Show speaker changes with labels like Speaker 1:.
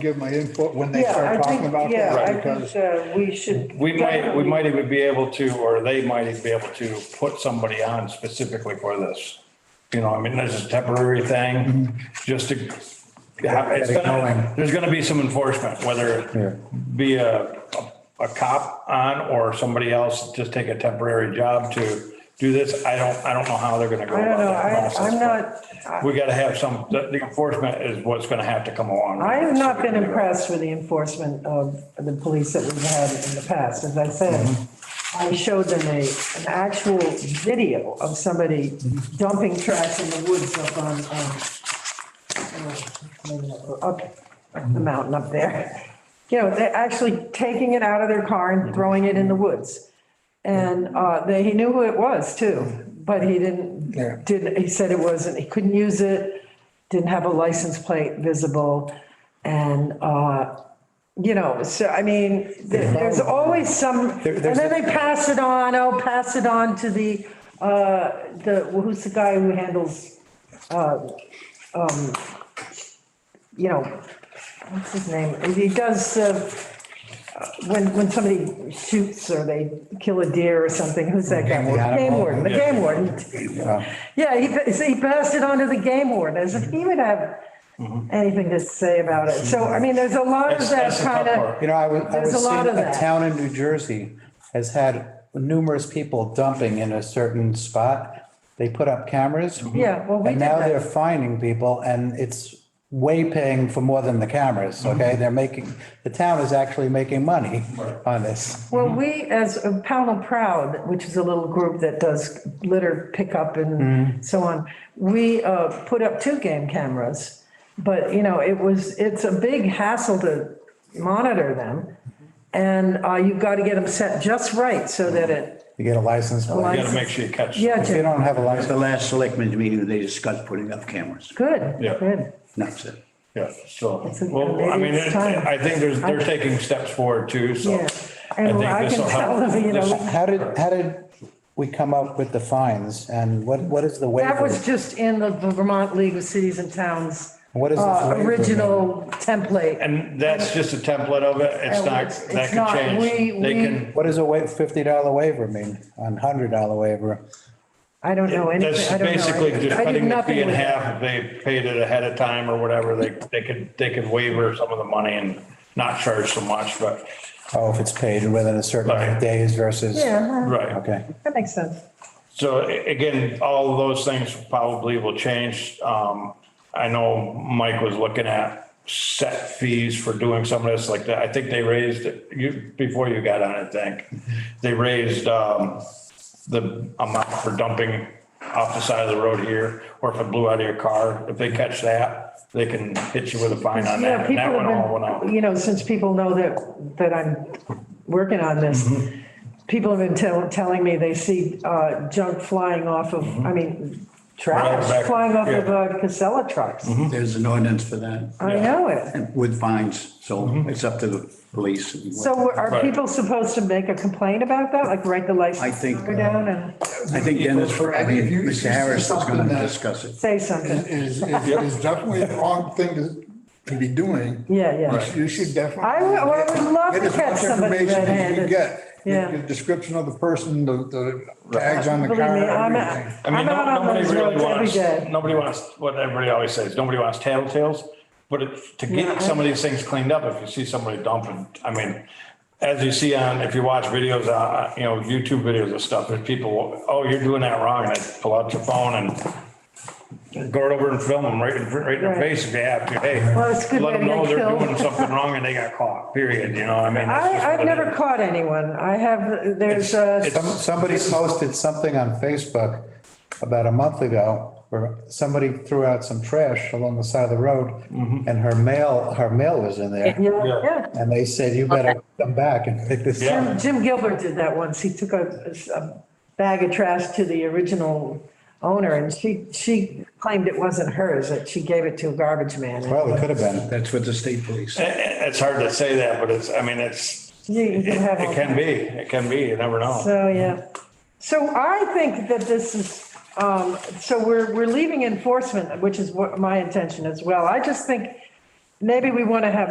Speaker 1: give my input when they
Speaker 2: Yeah, I
Speaker 1: start talking
Speaker 2: think-
Speaker 1: about
Speaker 2: Yeah,
Speaker 1: that,
Speaker 2: I
Speaker 1: because
Speaker 2: think uh, we should.
Speaker 3: We might, we might even be able to, or they might even be able to put somebody on specifically for this. You know, I mean, this is a temporary thing, just to. it's gonna- There's gonna be some enforcement, whether it be a, a cop on or somebody else just take a temporary job to do this. I don't, I don't know how they're gonna go
Speaker 2: I don't
Speaker 3: about
Speaker 2: know,
Speaker 3: that
Speaker 2: I,
Speaker 3: process.
Speaker 2: I'm
Speaker 3: but
Speaker 2: not, I-
Speaker 3: We gotta have some, the the enforcement is what's gonna have to come along. with
Speaker 2: I have
Speaker 3: this.
Speaker 2: not been impressed with the enforcement of the police that we've had in the past. As I said,
Speaker 1: Mm-hmm.
Speaker 2: I showed them a, an actual video of somebody dumping trash in the woods up on, um, uh, up the mountain up there. You know, they're actually taking it out of their car and throwing it in the woods. And uh, they, he knew who it was too, but he
Speaker 1: Yeah.
Speaker 2: didn't, didn't, he said it wasn't, he couldn't use it, didn't have a license plate visible. And, uh, you know, so I mean, there- there's always some, and
Speaker 4: there's
Speaker 2: then they pass it on, oh, pass it on to the, uh, the, who's the guy who handles, uh, um, you know, what's his name? He does, uh, when, when somebody shoots or they kill a deer or something, who's that guy?
Speaker 4: warden.
Speaker 2: Game warden, the game warden. Yeah, he, pa- so he passed it on to the game warden as if he would have anything to say about it. So, I mean, there's a lot of
Speaker 3: That's-
Speaker 2: that
Speaker 3: that's the tough
Speaker 2: kind of.
Speaker 3: part.
Speaker 4: You know, I was, I
Speaker 2: There's
Speaker 4: was
Speaker 2: a lot
Speaker 4: seeing
Speaker 2: of
Speaker 4: a
Speaker 2: that.
Speaker 4: town in New Jersey has had numerous people dumping in a certain spot. They put up cameras.
Speaker 2: Yeah, well, we
Speaker 4: And
Speaker 2: did
Speaker 4: now
Speaker 2: that.
Speaker 4: they're finding people and it's way paying for more than the cameras,
Speaker 2: Mm-hmm.
Speaker 4: okay? They're making, the town is actually making money on this.
Speaker 2: Well, we, as a Pownell Proud, which is a little group that does litter pickup and so on, we uh, put up two game cameras. But, you know, it was, it's a big hassle to monitor them. And uh, you've got to get them set just right so that it,
Speaker 4: You get a license
Speaker 3: You
Speaker 4: plate.
Speaker 3: gotta make sure you catch.
Speaker 2: yeah,
Speaker 4: If you
Speaker 2: Jim,
Speaker 4: don't have a
Speaker 5: At
Speaker 4: license,
Speaker 5: the last selectmen's meeting, they discussed putting up cameras.
Speaker 2: good,
Speaker 3: Yeah.
Speaker 2: good.
Speaker 5: And That's it.
Speaker 3: Yeah, so,
Speaker 2: It's a-
Speaker 3: well, I mean,
Speaker 2: maybe it's
Speaker 3: it-
Speaker 2: time.
Speaker 3: I think there's, they're taking steps forward too, so.
Speaker 2: Yeah. And I
Speaker 3: this
Speaker 2: can
Speaker 3: will
Speaker 2: tell
Speaker 3: help.
Speaker 2: them, you know,
Speaker 3: This-
Speaker 4: how did, how did we come up with the fines and what, what is the waiver?
Speaker 2: That was just in the Vermont League of Cities and Towns.
Speaker 4: What is this
Speaker 2: uh,
Speaker 4: waiver?
Speaker 2: Original template.
Speaker 3: And that's just a template of it. It's
Speaker 2: Uh,
Speaker 3: not,
Speaker 2: it's-
Speaker 3: that
Speaker 2: it's not.
Speaker 3: could
Speaker 2: We-
Speaker 3: change. They
Speaker 2: we-
Speaker 3: can,
Speaker 4: What does a wa- fifty dollar waiver mean? A hundred dollar waiver?
Speaker 2: I don't know anything.
Speaker 3: that's
Speaker 2: I don't know.
Speaker 3: basically
Speaker 2: I-
Speaker 3: just
Speaker 2: I did
Speaker 3: cutting the
Speaker 2: nothing
Speaker 3: fee in
Speaker 2: with that.
Speaker 3: half. If they paid it ahead of time or whatever, they, they could, they could waiver some of the money and not charge so much, but,
Speaker 4: Oh, if it's paid within a certain amount
Speaker 3: Right.
Speaker 4: of days versus.
Speaker 2: Yeah,
Speaker 3: right.
Speaker 4: Okay.
Speaker 2: that makes sense.
Speaker 3: So a- again, all of those things probably will change. Um, I know Mike was looking at set fees for doing some of this like that. I think they raised, you, before you got on, I think,
Speaker 2: Mm-hmm.
Speaker 3: they raised, um, the amount for dumping off the side of the road here, or if it blew out of your car, if they catch that, they can hit you with a fine on
Speaker 2: Yeah,
Speaker 3: that. And
Speaker 2: people
Speaker 3: that one all went
Speaker 2: have
Speaker 3: out.
Speaker 2: been, you know, since people know that, that I'm working on this,
Speaker 3: Mm-hmm.
Speaker 2: people have been tell- telling me they see uh, junk flying off of, I mean, trash
Speaker 3: Mm-hmm. back,
Speaker 2: flying off of
Speaker 3: yeah. Mm-hmm.
Speaker 2: uh, Casella trucks.
Speaker 1: Mm-hmm.
Speaker 5: There's an ordinance for that
Speaker 2: I
Speaker 3: Yeah.
Speaker 2: know it.
Speaker 5: and with fines,
Speaker 1: Mm-hmm.
Speaker 5: so it's up to the police.
Speaker 2: So are
Speaker 3: Right.
Speaker 2: people supposed to make a complaint about that? Like write the
Speaker 5: I
Speaker 2: license
Speaker 5: think-
Speaker 2: number down and
Speaker 5: I think Dennis, I
Speaker 1: I mean, if
Speaker 5: think
Speaker 1: you-
Speaker 5: Mr. Harris is
Speaker 1: something
Speaker 5: going to
Speaker 1: that-
Speaker 5: discuss it.
Speaker 2: say something?
Speaker 1: is, is, is definitely the wrong thing to, to be doing.
Speaker 2: Yeah, yeah.
Speaker 1: You should- You should definitely.
Speaker 2: I would- I would love to
Speaker 1: Get as much
Speaker 2: catch somebody
Speaker 1: information as you
Speaker 2: red-handed.
Speaker 1: Get
Speaker 2: Yeah.
Speaker 1: the description of the person, the, the tags on the
Speaker 2: Believe
Speaker 1: car,
Speaker 2: me, I'm,
Speaker 1: everything.
Speaker 2: out-
Speaker 3: I mean,
Speaker 2: I'm out
Speaker 3: no-
Speaker 2: on
Speaker 3: nobody
Speaker 2: those
Speaker 3: really
Speaker 2: roads every
Speaker 3: wants,
Speaker 2: day.
Speaker 3: nobody wants, what everybody always says, nobody wants tattletales. But it- to
Speaker 2: Yeah, I-
Speaker 3: get some of these things cleaned up, if you see somebody dumping, I mean, as you see on, if you watch videos, uh, you know, YouTube videos of stuff, there's people, oh, you're doing that wrong, and they pull out your phone and go right over and film them right in, fr- right in their
Speaker 2: Right.
Speaker 3: face if you have to, hey.
Speaker 2: Well, it's good
Speaker 3: Let
Speaker 2: they
Speaker 3: them know
Speaker 2: get
Speaker 3: they're
Speaker 2: killed.
Speaker 3: doing something wrong and they got caught, period, you know, I mean. that's just
Speaker 2: I, I've
Speaker 3: what it
Speaker 2: never
Speaker 3: is.
Speaker 2: caught anyone. I have, there's
Speaker 3: It's-
Speaker 2: uh,
Speaker 3: it's-
Speaker 4: Some, somebody posted something on Facebook about a month ago where somebody threw out some trash along the side of the road
Speaker 3: Mm-hmm.
Speaker 4: and her mail, her mail was in there.
Speaker 2: yeah, yeah.
Speaker 4: And they said, you better come back and pick this
Speaker 3: Yeah.
Speaker 4: up.
Speaker 2: Jim- Jim Gilbert did that once. He took a, a bag of trash to the original owner and she, she claimed it wasn't hers, that she gave it to a garbage man.
Speaker 4: Well, it could have been.
Speaker 5: That's with the state police.
Speaker 3: It- it- It's hard to say that, but it's, I mean, it's,
Speaker 2: You- you can have all
Speaker 3: it can be, it can be, you never know.
Speaker 2: So, yeah. So I think that this is, um, so we're, we're leaving enforcement, which is what my intention as well. I just think maybe we want to have